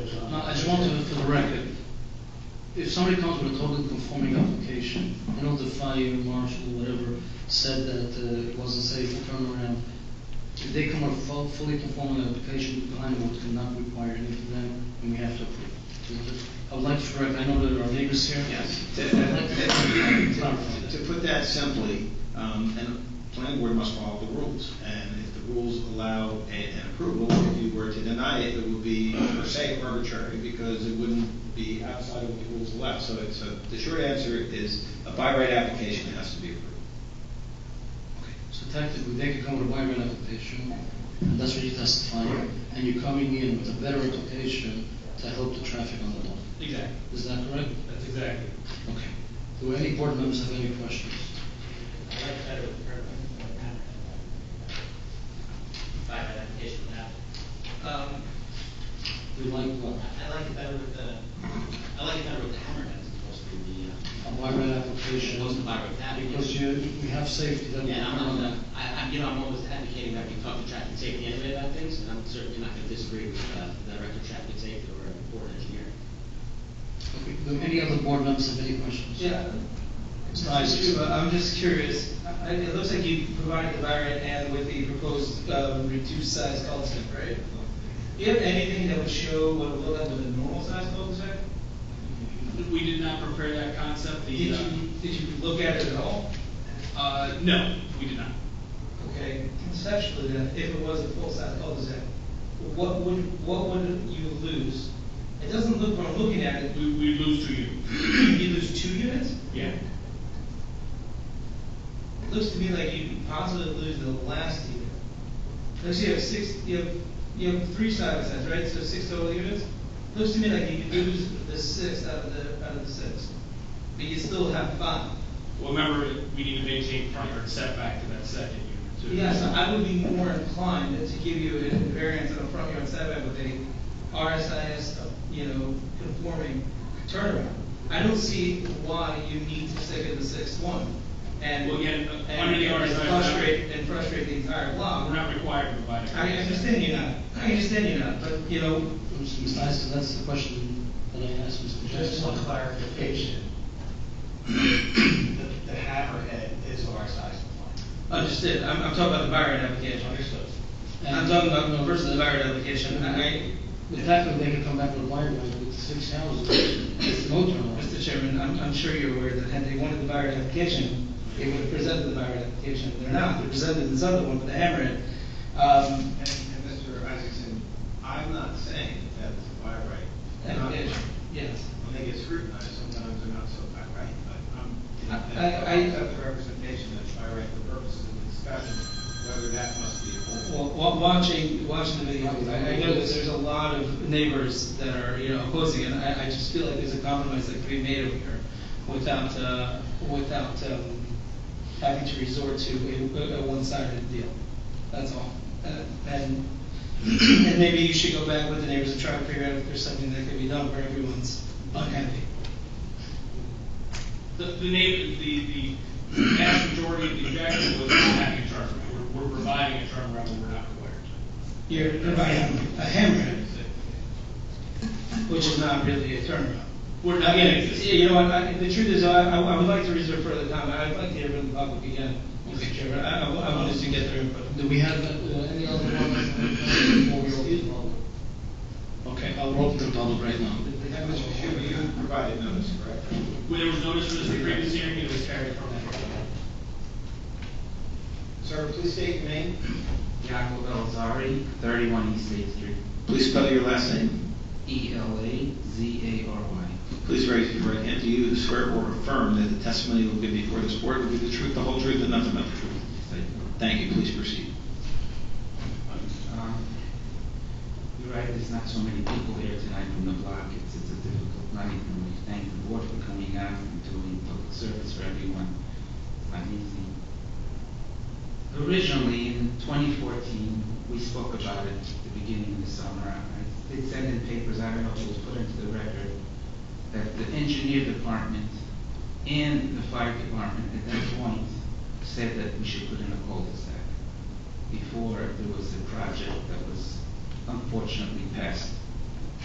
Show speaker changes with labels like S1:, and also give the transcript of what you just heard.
S1: just want to, for the record, if somebody comes with a totally conforming application, I know the fire marshal, whatever, said that uh, it wasn't safe to turn around. If they come with a fu- fully conforming application, behind would cannot require anything of them, and we have to approve. So just- I would like to correct, I know there are neighbors here.
S2: Yes, to, to-
S1: Clarify
S2: to
S1: that.
S2: put that simply, um, and the planning board must follow the rules, and if the rules allow a- an approval, if you were to deny it, it would be per se arbitrary, because it wouldn't be outside of what the rules allow, so it's, a- the short answer is, a by right application has to be approved.
S1: So technically, they could come with a by right application, and that's what you testify, and you're coming in with a better application to help the traffic on the lot.
S3: Exactly,
S1: Is that correct?
S3: that's exactly.
S1: Okay. Do any board members have any questions?
S4: I like better with permit. By that application now. Um,
S1: We like what?
S4: I like it better with the, I like it better with the hammerhead as opposed to
S1: A
S4: the,
S1: by right
S4: uh,
S1: application?
S4: opposed to by right that.
S1: Because you, we have safety, then.
S4: Yeah, I'm not, gonna- I, I, you know, I'm always advocating that we talk to traffic safety anyway about things, and I'm certainly not gonna disagree with, uh, the director of traffic safety or a board engineer.
S1: Okay. Do any other board members have any questions?
S5: Yeah.
S1: It's nice.
S5: Mr. Chuba, I'm just curious, I- I- it looks like you provided the variant and with the proposed um, reduced size cul-de-sac, right? Do you have anything that would show what it would look like with a normal size cul-de-sac?
S3: We did not prepare that concept,
S5: Did
S3: the,
S5: you,
S3: uh,
S5: did you look at it at all?
S3: uh, no, we did not.
S5: Okay, conceptually then, if it was a full-size cul-de-sac, what would, what would you lose? It doesn't look, when I'm looking at it,
S3: We, we lose to you.
S5: you lose two units?
S3: Yeah.
S5: It looks to me like you possibly lose the last unit. Looks you have six, you have, you have three side by sides, right, so six total units? Looks to me like you could lose the six out of the, out of the six, but you still have five.
S3: Well, remember, we need to maintain front yard setback to that second unit too.
S5: Yeah, so I would be more inclined to give you a variance on a front yard setback with a RSIS, you know, conforming turnaround. I don't see why you need to stick at the sixth one and.
S3: Well, again,
S5: and-
S3: under the
S5: and
S3: RSIS
S5: Frustrate, and frustrate the entire block.
S3: We're not required to provide. a-
S5: I understand you're not, I understand you're not, but, you know,
S1: It's nice, 'cause that's the question that I asked Mr.
S6: Just
S1: Jackson.
S6: one clarification. The the hammerhead is our size compliant.
S5: understood, I'm, I'm talking about the Byron application.
S6: Understood.
S5: I'm talking about versus the Byron application, I,
S1: But technically, they could come back with a by right with six houses, with no
S5: I,
S1: turnaround.
S5: Mr. Chairman, I'm, I'm sure you're aware that had they wanted the Byron application, they would have presented the Byron application, they're not, they presented this other one with the hammerhead. Um,
S2: And, and Mr. Isaacson, I'm not saying that it's a by right.
S5: application, yes.
S2: When they get scrutinized, sometimes they're not so by right, but I'm,
S5: I- I-
S2: I accept the representation that's by right for purposes of discussion, whether that must be approved.
S5: Well, wa- watching, watching the video, I, I know that there's a lot of neighbors that are, you know, opposing, and I, I just feel like there's a compromise that could be made over here without, uh, without, um, having to resort to a, a one-sided deal. That's all. Uh, And, and maybe you should go back with the neighbors and try to figure out if there's something that could be done where everyone's unhappy.
S3: The, the name, the, the vast majority of the objection was not having a turnaround. We're, we're providing a turnaround when we're not required to.
S5: You're providing a hammerhead, which is not really a turnaround.
S3: We're not
S5: Again,
S3: getting
S5: it's- you know, what, I, the truth is, I, I I would like to reserve further comment, I'd like to hear from the public again, Mr. Chairman, I, I I wanted to get their input.
S1: Do we have uh, any other board members before we open the public? Okay, I'll open the public right now.
S2: And Mr. Shuba, you provided notice, correct?
S3: When there was notice for this previous hearing, it was carried from that.
S2: Sir, please state your name.
S7: Jacob Elzari, 31 East State Street. E
S2: Please spell your last name.
S7: E-L-A-Z-A-R-Y.
S2: Please raise your right hand. Do you swear or affirm that the testimony you will give before this board will be the truth, the whole truth, and nothing but the truth?
S7: Thank
S2: Thank you. Please proceed.
S7: you. Um, You're right, there's not so many people here tonight from the block. It's it's a difficult night, and we thank the board for coming out and doing public service for everyone. It's not easy. Originally, in 2014, we spoke about it at the beginning of the summer. I did send in papers, I don't know if it was put into the record, that the engineer department and the fire department at that point said that we should put in a cul-de-sac before there was a project that was unfortunately passed